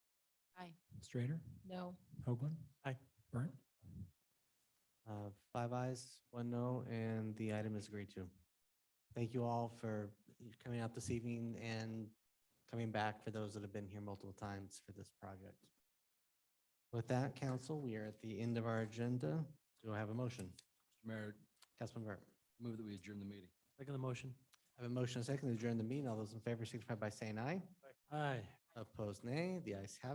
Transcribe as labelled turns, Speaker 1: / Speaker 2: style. Speaker 1: Aye.
Speaker 2: Strater,
Speaker 1: No.
Speaker 2: Hoagland.
Speaker 3: Aye.
Speaker 2: Burnt.
Speaker 3: Uh, Five ayes, one no, and the item is agreed to. Thank you all for coming out this evening and coming back for those that have been here multiple times for this project. With that, council, we are at the end of our agenda. Do I have a motion?
Speaker 4: Mayor,
Speaker 3: Councilman Burke.
Speaker 4: move that we adjourn the meeting.
Speaker 5: Second the motion.
Speaker 3: I have a motion and a second to adjourn the meeting. All those in favor signify by saying aye.
Speaker 5: Aye.
Speaker 3: Opposed, nay. The ayes have